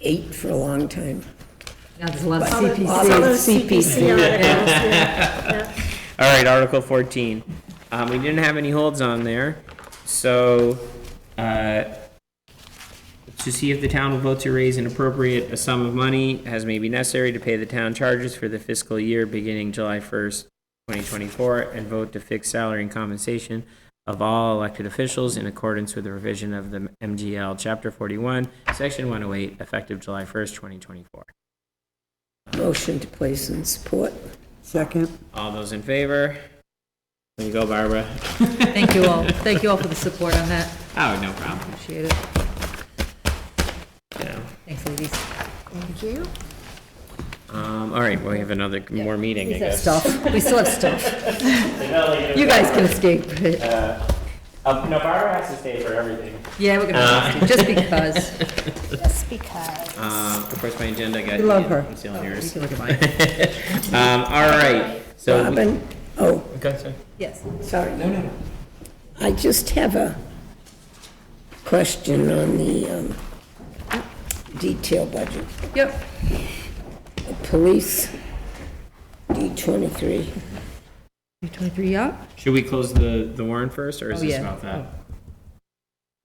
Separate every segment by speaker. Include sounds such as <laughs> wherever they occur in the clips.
Speaker 1: eight for a long time.
Speaker 2: Now, there's a lot of
Speaker 1: All the- all
Speaker 2: CPC.
Speaker 1: those CPC on it, yeah.
Speaker 3: All right, Article 14. Um, we didn't have any holds on there, so, uh, to see if the town will vote to raise and appropriate a sum of money as may be necessary to pay the town charges for the fiscal year beginning July 1st, 2024, and vote to fix salary and compensation of all elected officials in accordance with the revision of the MGL Chapter 41, Section 108, effective July 1st, 2024.
Speaker 1: Motion to place and support.
Speaker 4: Second.
Speaker 3: All those in favor? There you go, Barbara.
Speaker 2: Thank you all, thank you all for the support on that,
Speaker 3: Oh, no problem.
Speaker 2: appreciate it.
Speaker 3: Yeah.
Speaker 2: Thanks, ladies.
Speaker 1: Thank you.
Speaker 3: Um, all right, well, we have another, more meeting,
Speaker 2: That
Speaker 3: I guess.
Speaker 2: stuff, we still have
Speaker 3: <laughs>
Speaker 2: stuff. You guys can escape.
Speaker 3: Uh, no, Barbara has to stay for everything.
Speaker 2: Yeah, we're gonna, have to,
Speaker 3: uh, <laughs>
Speaker 2: just because.
Speaker 5: Just because.
Speaker 3: Um, of course, my agenda got.
Speaker 4: We love her.
Speaker 3: I'm stealing
Speaker 2: You
Speaker 3: yours.
Speaker 2: can look at mine.
Speaker 3: Um, all right, so. we-
Speaker 1: Robin, oh,
Speaker 3: Okay, sorry.
Speaker 2: Yes.
Speaker 1: sorry. No, no. I just have a question on the um, detail budget.
Speaker 2: Yep.
Speaker 1: The Police, D23.
Speaker 2: 23 up?
Speaker 3: Should we close the, the warrant first, or is
Speaker 2: Oh,
Speaker 3: this
Speaker 2: yeah.
Speaker 3: about that?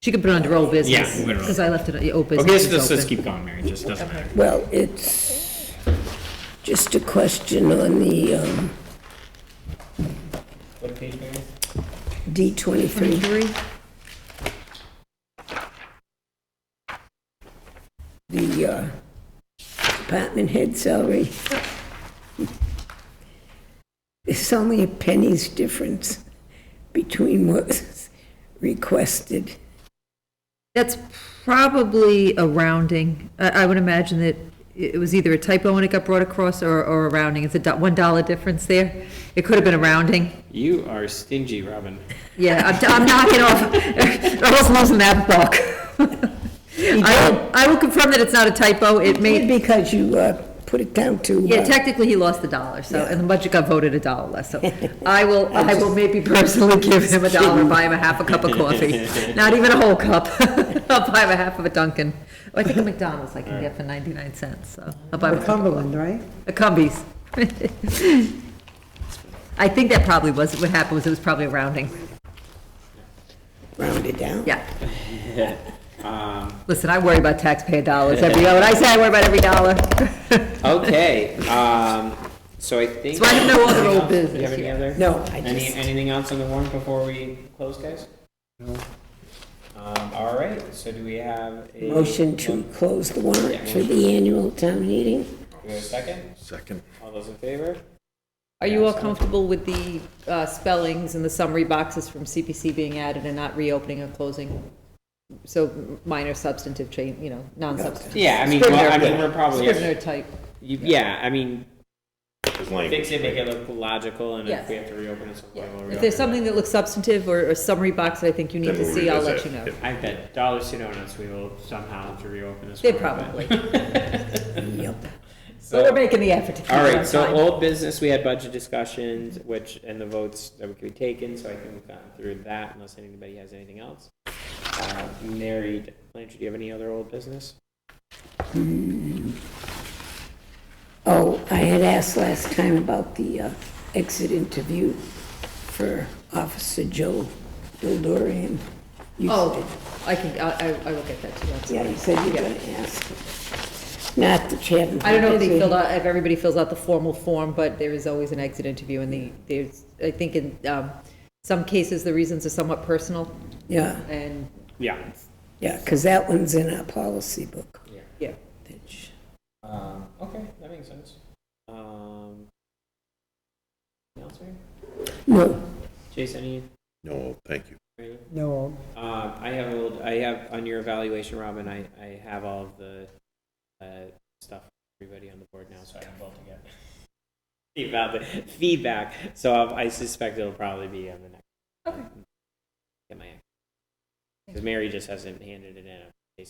Speaker 2: She could put it under old business.
Speaker 3: Yeah, we're on.
Speaker 2: Because I left it, uh, old business.
Speaker 3: Okay,
Speaker 2: is
Speaker 3: so let's
Speaker 2: open.
Speaker 3: just keep going, Mary, just doesn't matter.
Speaker 1: Well, it's just a question on the um,
Speaker 3: What page, Mary?
Speaker 1: D23.
Speaker 2: 23?
Speaker 1: the uh, department head salary. It's only a penny's difference between what's requested.
Speaker 2: That's probably a rounding. I, I would imagine that it it was either a typo when it got brought across or, or a rounding. It's a do- $1 difference there. It could have been a rounding.
Speaker 3: You are stingy, Robin.
Speaker 2: Yeah, I'm, I'm knocking off, <laughs> I was losing that buck. I will, I will confirm that it's not a typo. It may,
Speaker 1: Because you uh, put it down to. uh,
Speaker 2: Yeah, technically, he lost a dollar, so, and the budget got voted a dollar less,
Speaker 3: <laughs>
Speaker 2: so I will, I will maybe personally <laughs> give him a dollar, buy him a half a cup of
Speaker 3: <laughs>
Speaker 2: coffee, not even a whole cup. <laughs> I'll buy him a half of a Dunkin'. I think a McDonald's I can get for 99 cents, so I'll buy him a cup of
Speaker 4: Cumberland, right?
Speaker 2: a Cumbies. <laughs> I think that probably was, what happened was it was probably a rounding,
Speaker 1: Round it down.
Speaker 2: yeah.
Speaker 3: <laughs> Um,
Speaker 2: Listen, I worry about taxpayer dollars every, when I say I worry about every dollar. <laughs>
Speaker 3: okay, um, so I think.
Speaker 2: So I have no other old
Speaker 3: Anything else? Do you have
Speaker 2: business,
Speaker 3: any
Speaker 2: yeah.
Speaker 3: other?
Speaker 1: No, I
Speaker 3: Any,
Speaker 1: just,
Speaker 3: anything else on the warrant before we close, guys? No. Um, all right, so do we have a?
Speaker 1: motion to close the warrant for the annual town meeting.
Speaker 3: Do we have a second?
Speaker 6: Second.
Speaker 3: All those in favor?
Speaker 2: Are you all comfortable with the uh, spellings and the summary boxes from CPC being added and not reopening or closing? So minor substantive change, you know, non-substantive.
Speaker 3: Yeah, I mean, well, I mean, we're probably,
Speaker 2: Scrivener
Speaker 3: you-
Speaker 2: type,
Speaker 3: yeah, I mean,
Speaker 6: His language.
Speaker 3: fix it, make it look logical, and if
Speaker 2: Yes.
Speaker 3: we have to reopen at some point, we'll
Speaker 2: if there's
Speaker 3: reopen it.
Speaker 2: something that looks substantive or a summary box that I think you need
Speaker 6: Then
Speaker 2: to
Speaker 6: we'll
Speaker 2: see, I'll let you
Speaker 6: revisit.
Speaker 2: know.
Speaker 6: Yep.
Speaker 3: I bet Dollar Donuts we will somehow have to reopen this.
Speaker 2: They
Speaker 3: one, but- <laughs>
Speaker 2: probably,
Speaker 1: Yep.
Speaker 2: but we're making the effort to keep it
Speaker 3: All
Speaker 2: on
Speaker 3: right, so
Speaker 2: time.
Speaker 3: old business, we had budget discussions, which, and the votes that could be taken, so I think we've gotten through that unless anybody has anything else. Uh, Mary, Blanchard, do you have any other old business?
Speaker 1: Oh, I had asked last time about the uh, exit interview for Officer Joe Bildorian. You
Speaker 2: Oh, I can, I, I I will get that to you. I'm
Speaker 1: Yeah, you
Speaker 2: sorry.
Speaker 1: said you were gonna ask. Not that you haven't.
Speaker 2: I don't know if they filled out, if everybody fills out the formal form, but there is always an exit interview and the, there's, I think in um, some cases, the reasons are somewhat personal
Speaker 1: Yeah,
Speaker 2: and,
Speaker 3: Yeah.
Speaker 1: yeah, because that one's in our policy book.
Speaker 2: yeah.
Speaker 1: which-
Speaker 3: Um, okay, that makes sense. Um, anything else, Mary?
Speaker 1: No,
Speaker 3: Chase, any,
Speaker 6: No, thank you.
Speaker 3: Mary?
Speaker 4: No.
Speaker 3: Um, I have a little, I have, on your evaluation, Robin, I, I have all of the, uh, stuff, for everybody on the board now, so I have all together. About <laughs> the feedback, so I I suspect it'll probably be on the next. Okay. Get my, because Mary just hasn't handed it in.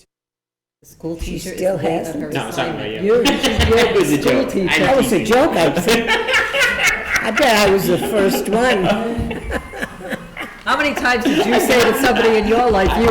Speaker 2: The School
Speaker 1: She
Speaker 2: teacher is
Speaker 1: still
Speaker 2: late on her
Speaker 1: hasn't.
Speaker 3: No, I'm talking about
Speaker 2: assignment.
Speaker 3: you.
Speaker 1: You're-
Speaker 3: <laughs> It was a joke. I know.
Speaker 1: that was a joke, I think. I bet I was the first one.
Speaker 2: How many times did you say to somebody in your life, you